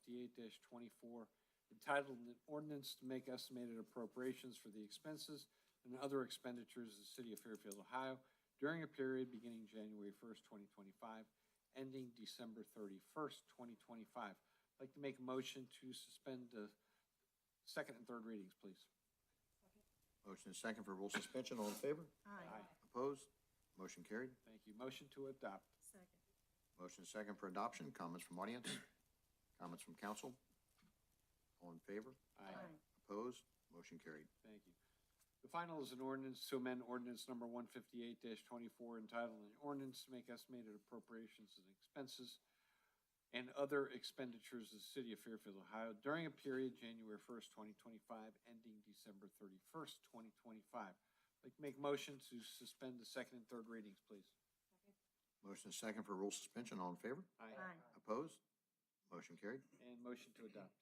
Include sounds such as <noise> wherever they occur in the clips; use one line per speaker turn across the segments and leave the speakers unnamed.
twenty-eight twenty-four, entitled an ordinance to make estimated appropriations for the expenses and other expenditures of the city of Fairfield, Ohio during a period beginning January first, twenty twenty-five, ending December thirty-first, twenty twenty-five. I'd like to make a motion to suspend the second and third readings, please.
Motion is second for rule suspension. All in favor?
Aye.
Opposed? Motion carried.
Thank you. Motion to adopt.
Second.
Motion is second for adoption. Comments from audience? Comments from council? All in favor? Opposed? Motion carried.
Thank you. The final is an ordinance to amend ordinance number one fifty-eight twenty-four entitled an ordinance to make estimated appropriations and expenses and other expenditures of the city of Fairfield, Ohio during a period January first, twenty twenty-five, ending December thirty-first, twenty twenty-five. Like to make motion to suspend the second and third readings, please.
Motion is second for rule suspension. All in favor?
Aye.
Opposed? Motion carried.
And motion to adopt.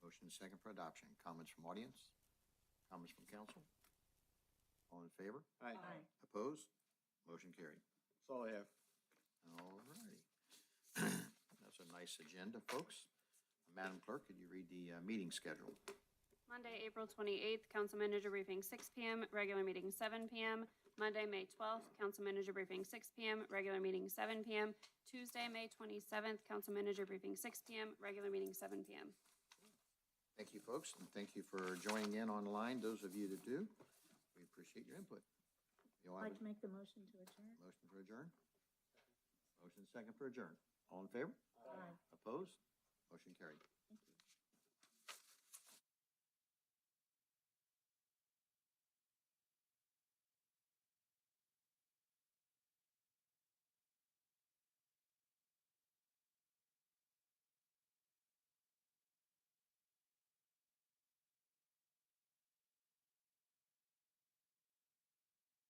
Motion is second for adoption. Comments from audience? Comments from council? All in favor?
Aye.
Aye.
Opposed? Motion carried.
That's all I have.
All righty. <clears throat> That's a nice agenda, folks. Madam Clerk, could you read the uh, meeting schedule?
Monday, April twenty-eighth, council manager briefing six P M, regular meeting seven P M. Monday, May twelfth, council manager briefing six P M, regular meeting seven P M. Tuesday, May twenty-seventh, council manager briefing six P M, regular meeting seven P M.
Thank you, folks, and thank you for joining in online, those of you that do. We appreciate your input. You'll
I'd like
have a
to make the motion to adjourn.
motion for adjourn? Motion second for adjourn. All in favor?
Aye.
Opposed? Motion carried.
Thank you.